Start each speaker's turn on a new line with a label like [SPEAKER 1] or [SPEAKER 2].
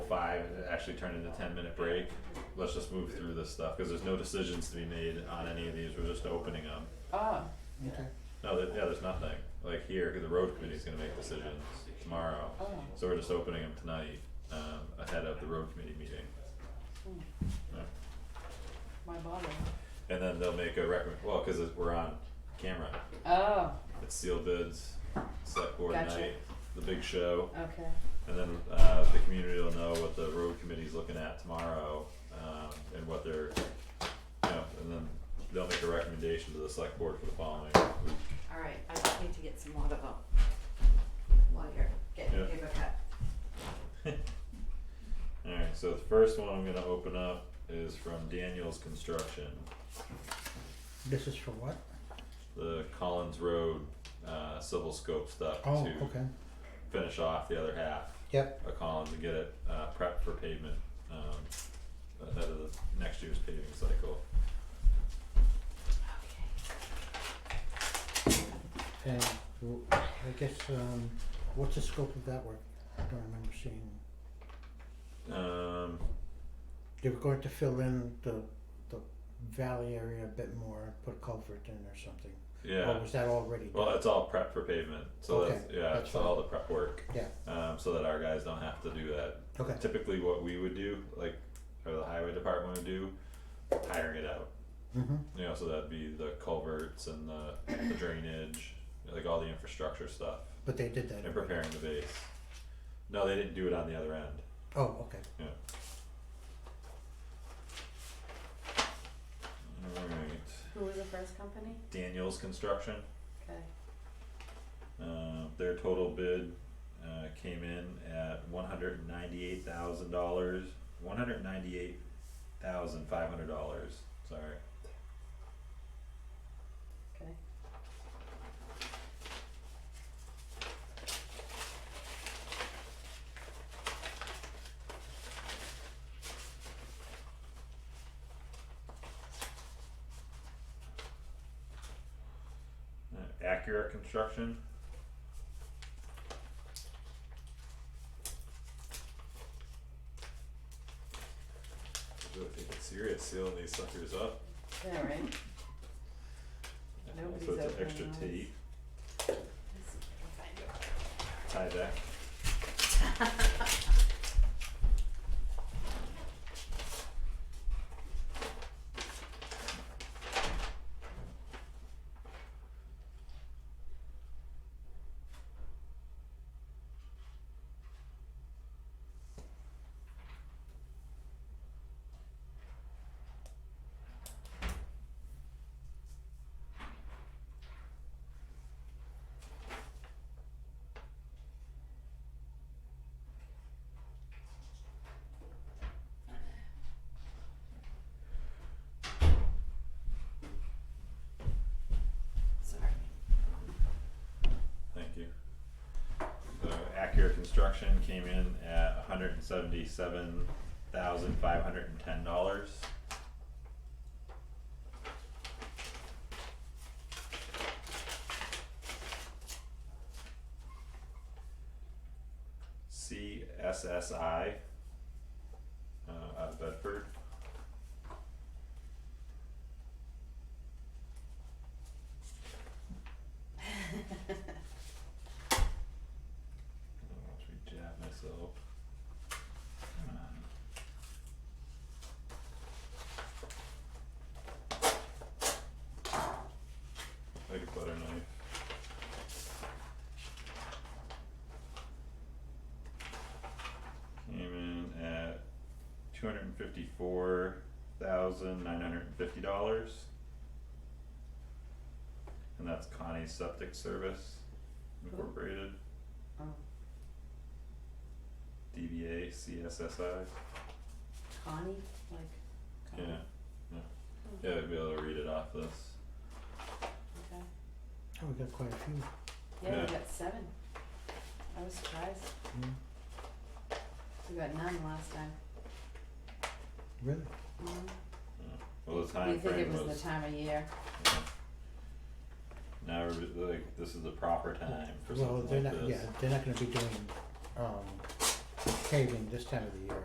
[SPEAKER 1] it actually turned into ten minute break, let's just move through this stuff, cause there's no decisions to be made on any of these, we're just opening them.
[SPEAKER 2] Ah,
[SPEAKER 3] Okay.
[SPEAKER 1] No, there, yeah, there's nothing, like here, the road committee's gonna make decisions tomorrow,
[SPEAKER 2] oh,
[SPEAKER 1] so we're just opening them tonight, um, ahead of the road committee meeting.
[SPEAKER 2] hmm,
[SPEAKER 1] Yeah.
[SPEAKER 2] my bother.
[SPEAKER 1] And then they'll make a recommend, well, cause it- we're on camera,
[SPEAKER 2] Oh,
[SPEAKER 1] it's sealed bids, select board
[SPEAKER 2] Gotcha.
[SPEAKER 1] night, the big show.
[SPEAKER 2] okay,
[SPEAKER 1] And then uh the community will know what the road committee's looking at tomorrow, um and what they're, you know, and then they'll make a recommendation to the select board for the following week.
[SPEAKER 4] Alright, I just need to get some water though. While you're getting
[SPEAKER 1] Yeah.
[SPEAKER 4] your paper cut.
[SPEAKER 1] Alright, so the first one I'm gonna open up is from Daniel's Construction,
[SPEAKER 3] This is for what?
[SPEAKER 1] the Collins Road uh civil scope stuff
[SPEAKER 3] Oh,
[SPEAKER 1] to
[SPEAKER 3] okay.
[SPEAKER 1] finish off the other half
[SPEAKER 3] Yep.
[SPEAKER 1] of Collins and get it uh prepped for pavement um ahead of the next year's paving cycle.
[SPEAKER 3] And w- I guess um, what's the scope of that work? I don't remember seeing.
[SPEAKER 1] Um
[SPEAKER 3] They were going to fill in the the valley area a bit more, put culvert in or something.
[SPEAKER 1] yeah.
[SPEAKER 3] Or was that already done?
[SPEAKER 1] Well, it's all prep for pavement, so
[SPEAKER 3] Okay,
[SPEAKER 1] that's, yeah,
[SPEAKER 3] that's
[SPEAKER 1] it's all the prep work.
[SPEAKER 3] Yeah.
[SPEAKER 1] Um, so that our guys don't have to do that.
[SPEAKER 3] okay.
[SPEAKER 1] Typically what we would do, like, or the highway department would do, hiring it out.
[SPEAKER 3] Mm-hmm.
[SPEAKER 1] You know, so that'd be the culverts and the, the drainage, like all the infrastructure stuff,
[SPEAKER 3] But they did that.
[SPEAKER 1] and
[SPEAKER 3] already.
[SPEAKER 1] preparing the base. No, they didn't do it on the other end.
[SPEAKER 3] Oh, okay.
[SPEAKER 1] Alright,
[SPEAKER 4] Who was the first company?
[SPEAKER 1] Daniels Construction,
[SPEAKER 4] Okay.
[SPEAKER 1] uh, their total bid, uh, came in at one hundred and ninety-eight thousand dollars, one hundred and ninety-eight thousand five hundred dollars, sorry.
[SPEAKER 4] Okay.
[SPEAKER 1] Uh, Accurate Construction. Really taking serious sealing these suckers up.
[SPEAKER 2] yeah, right, Nobody's
[SPEAKER 1] So it's an
[SPEAKER 2] opening
[SPEAKER 1] extra
[SPEAKER 2] those.
[SPEAKER 1] T,
[SPEAKER 4] Let's see if I can find it.
[SPEAKER 1] Tyvek.
[SPEAKER 4] Sorry.
[SPEAKER 1] Thank you. So Accura Construction came in at hundred and seventy-seven thousand five hundred and ten dollars. CSSI, uh, out of Bedford. I'll actually jab myself. Come on. Like a butter knife. Came in at two hundred and fifty-four thousand nine hundred and fifty dollars. And that's Connie's Septic Service Incorporated.
[SPEAKER 2] oh,
[SPEAKER 1] DBA CSSI.
[SPEAKER 2] Connie, like,
[SPEAKER 1] Yeah,
[SPEAKER 2] Connie,
[SPEAKER 1] yeah. Yeah, I'd be able to read it off this.
[SPEAKER 2] okay,
[SPEAKER 3] Oh, we got quite a few.
[SPEAKER 2] yeah,
[SPEAKER 1] Yeah.
[SPEAKER 2] we got seven. I was surprised,
[SPEAKER 3] Mm.
[SPEAKER 2] we got none last time,
[SPEAKER 3] Really?
[SPEAKER 2] mhm,
[SPEAKER 4] Mm-hmm.
[SPEAKER 1] Well, the
[SPEAKER 2] we
[SPEAKER 1] time
[SPEAKER 2] think it
[SPEAKER 1] frame
[SPEAKER 2] was
[SPEAKER 1] was.
[SPEAKER 2] the time of year,
[SPEAKER 1] yeah. Now, everybody- like, this is the proper time for
[SPEAKER 3] well,
[SPEAKER 1] something
[SPEAKER 3] they're
[SPEAKER 1] like
[SPEAKER 3] not.
[SPEAKER 1] this.
[SPEAKER 3] Yeah, they're not going to be doing um, paving this time of the year.